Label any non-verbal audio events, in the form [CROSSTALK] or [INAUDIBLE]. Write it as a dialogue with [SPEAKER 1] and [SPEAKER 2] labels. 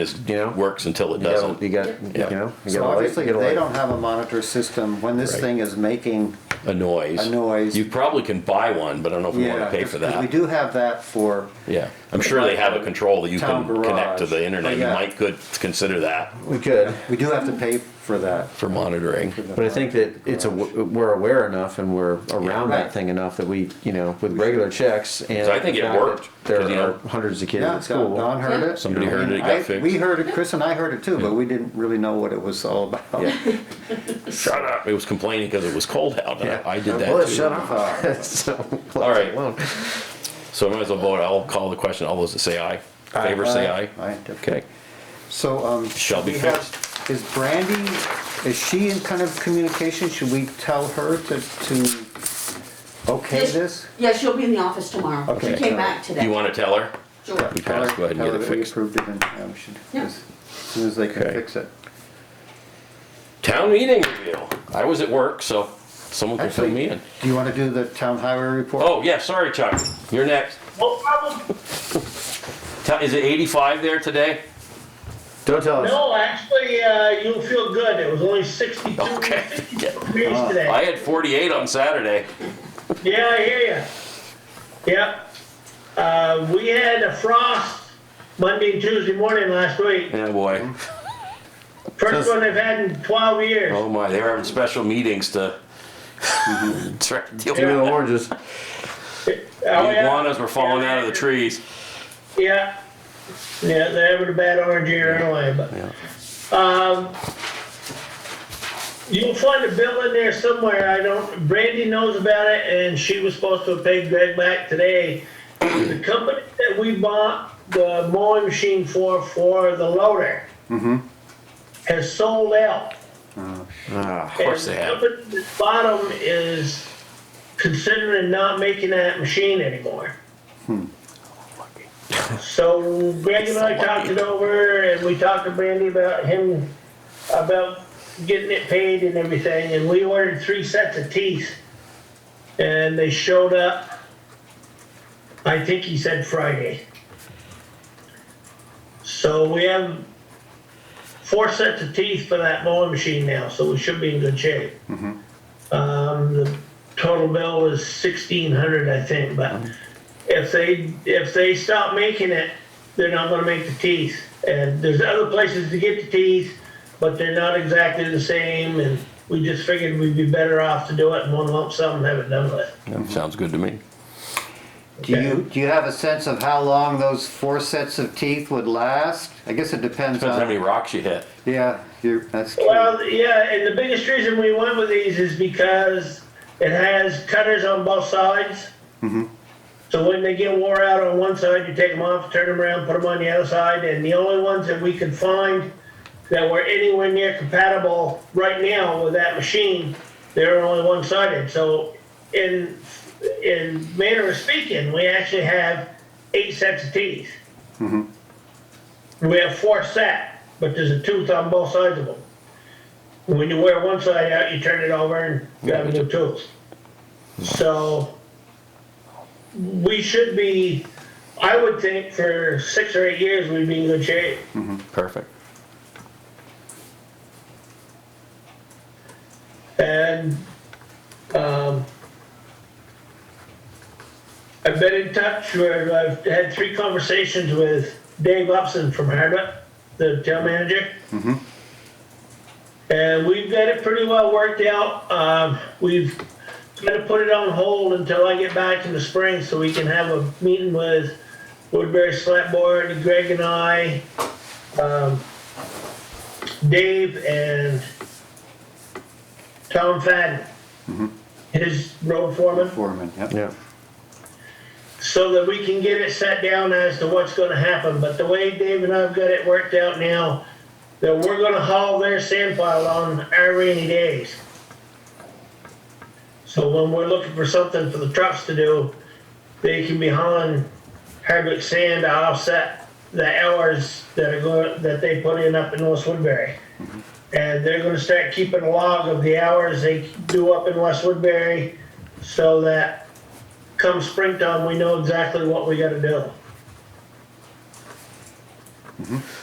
[SPEAKER 1] It
[SPEAKER 2] You know?
[SPEAKER 1] works until it
[SPEAKER 2] You got,
[SPEAKER 1] doesn't.
[SPEAKER 2] you got, you
[SPEAKER 1] Yeah.
[SPEAKER 2] know, you
[SPEAKER 3] So
[SPEAKER 2] got a light,
[SPEAKER 3] obviously,
[SPEAKER 2] you
[SPEAKER 3] if
[SPEAKER 2] got a
[SPEAKER 3] they
[SPEAKER 2] light.
[SPEAKER 3] don't have a monitor system, when this
[SPEAKER 1] Right.
[SPEAKER 3] thing is making,
[SPEAKER 1] A noise.
[SPEAKER 3] A noise.
[SPEAKER 1] You probably can buy one, but I don't know if you want
[SPEAKER 3] yeah.
[SPEAKER 1] to pay for
[SPEAKER 3] 'cause We
[SPEAKER 1] that.
[SPEAKER 3] do have that for,
[SPEAKER 1] Yeah, I'm sure they have a control that you
[SPEAKER 3] Town
[SPEAKER 1] can connect to
[SPEAKER 3] garage. Oh,
[SPEAKER 1] the internet. You
[SPEAKER 3] Yeah.
[SPEAKER 1] might could consider that
[SPEAKER 2] We could,
[SPEAKER 3] we do have to pay for that.
[SPEAKER 1] for monitoring.
[SPEAKER 2] but I think that it's a, we're aware enough and we're around
[SPEAKER 3] Right.
[SPEAKER 2] that thing enough that we, you know, with regular checks and.
[SPEAKER 1] So I think it
[SPEAKER 2] the fact
[SPEAKER 1] worked,
[SPEAKER 2] that There
[SPEAKER 1] 'cause, you
[SPEAKER 2] are
[SPEAKER 1] know-
[SPEAKER 2] hundreds of kids
[SPEAKER 3] Yeah,
[SPEAKER 2] at
[SPEAKER 3] Don
[SPEAKER 2] school.
[SPEAKER 3] Don heard it.
[SPEAKER 1] Somebody
[SPEAKER 3] I
[SPEAKER 1] heard
[SPEAKER 3] mean,
[SPEAKER 1] it, it got
[SPEAKER 3] I-
[SPEAKER 1] fixed.
[SPEAKER 3] We heard it, Chris and I heard it too, but we didn't really know what it was all about. [LAUGHS]
[SPEAKER 2] Yeah.
[SPEAKER 1] Shut up. It was complaining because it was cold out. and I-
[SPEAKER 2] Yeah.
[SPEAKER 1] I did
[SPEAKER 2] Well,
[SPEAKER 1] that too.
[SPEAKER 2] shut up. [LAUGHS] So,
[SPEAKER 1] All right.
[SPEAKER 2] alone.
[SPEAKER 1] So I might as well vote. I'll call the question. All those that say aye, favor [LAUGHS] say aye.
[SPEAKER 3] Aye.
[SPEAKER 1] Okay.
[SPEAKER 3] So, um.
[SPEAKER 1] Shall be
[SPEAKER 3] we have- Is Brandy, is she in kind of communication? Should we tell her to, to okay
[SPEAKER 4] Yes.
[SPEAKER 3] this?
[SPEAKER 4] Yeah, she'll be in the office tomorrow. She
[SPEAKER 3] Okay.
[SPEAKER 4] came back today.
[SPEAKER 1] You want to tell her?
[SPEAKER 4] Sure.
[SPEAKER 1] We passed, go ahead and get
[SPEAKER 3] Tell her
[SPEAKER 1] it
[SPEAKER 3] that we
[SPEAKER 1] fixed.
[SPEAKER 3] approved it and, yeah, we should,
[SPEAKER 4] Yeah.
[SPEAKER 3] as soon as they can
[SPEAKER 1] Okay.
[SPEAKER 3] fix it.
[SPEAKER 1] Town meeting review. I was at work, so someone can fill me in.
[SPEAKER 3] Do you want to do the town highway report?
[SPEAKER 1] Oh, yeah, sorry, Chuck. You're next.
[SPEAKER 5] No problem.
[SPEAKER 1] Tell- Is it 85 there today?
[SPEAKER 2] Don't tell us.
[SPEAKER 5] No, actually, uh, you'll feel good. It was only 62
[SPEAKER 1] Okay.
[SPEAKER 5] 62 degrees today.
[SPEAKER 1] I had 48 on Saturday.
[SPEAKER 5] Yeah, I hear you. Yep. Uh, we had a frost Monday and Tuesday morning last week.
[SPEAKER 1] Yeah, boy.
[SPEAKER 5] First one they've had in 12 years.
[SPEAKER 1] Oh my, they were having special meetings to [LAUGHS] try to deal
[SPEAKER 2] Give me
[SPEAKER 1] with
[SPEAKER 2] the
[SPEAKER 1] it.
[SPEAKER 2] oranges.
[SPEAKER 5] Oh,
[SPEAKER 1] The
[SPEAKER 5] yeah.
[SPEAKER 1] iguanas were falling out of the trees.
[SPEAKER 5] Yeah. Yeah, they were a bad orange year anyway, but. um,
[SPEAKER 1] Yeah.
[SPEAKER 5] You'll find a bill in there somewhere, I don't, Brandy knows about it, and she was supposed to have paid Greg back today. The company that we bought the mowing machine for, for the loader. Has sold out.
[SPEAKER 2] Ah,
[SPEAKER 5] Of
[SPEAKER 1] course they have.
[SPEAKER 5] And the company that bought 'em is considering not making that machine anymore. So Greg and I talked it over and we talked to Brandy about him, about getting it paid and everything, and we ordered three sets of teeth. And they showed up, I think he said Friday. So we have four sets of teeth for that mowing machine now, so we should be in good shape. Um, the total bill was sixteen hundred, I think, but if they, if they stop making it, they're not gonna make the teeth. And there's other places to get the teeth, but they're not exactly the same, and we just figured we'd be better off to do it in one lump sum and have it done with.
[SPEAKER 1] Sounds good to me.
[SPEAKER 3] Do you, do you have a sense of how long those four sets of teeth would last? I guess it depends
[SPEAKER 1] Depends how many
[SPEAKER 3] on,
[SPEAKER 1] rocks you hit.
[SPEAKER 3] yeah, you're, that's true.
[SPEAKER 5] Well, yeah, and the biggest reason we went with these is because it has cutters on both sides. So when they get wore out on one side, you take them off, turn them around, put them on the other side, and the only ones that we could find that were anywhere near compatible right now with that machine, they're only one-sided. So in, in manner of speaking, we actually have eight sets of teeth. We have four set, but there's a tooth on both sides of them. When you wear one side out, you turn it over and you have a new tooth. So we should be, I would think for six or eight years, we'd be in good shape.
[SPEAKER 1] Perfect.
[SPEAKER 5] And um, I've been in touch where I've had three conversations with Dave Upson from Hardwick, the town manager. And we've got it pretty well worked out. Um, We've got to put it on hold until I get back in the spring so we can have a meeting with Woodbury Select Board, Greg and I, um, Dave and Tom Fadden, his road foreman,
[SPEAKER 3] Foreman, yep.
[SPEAKER 2] yeah.
[SPEAKER 5] so that we can get it set down as to what's gonna happen. But the way Dave and I've got it worked out now, that we're gonna haul their sand pile on our rainy days. So when we're looking for something for the trucks to do, they can be hauling Hardwick sand to offset the hours that are going, that they put in up in West Woodbury. And they're gonna start keeping a log of the hours they do up in West Woodbury so that come springtime, we know exactly what we gotta do.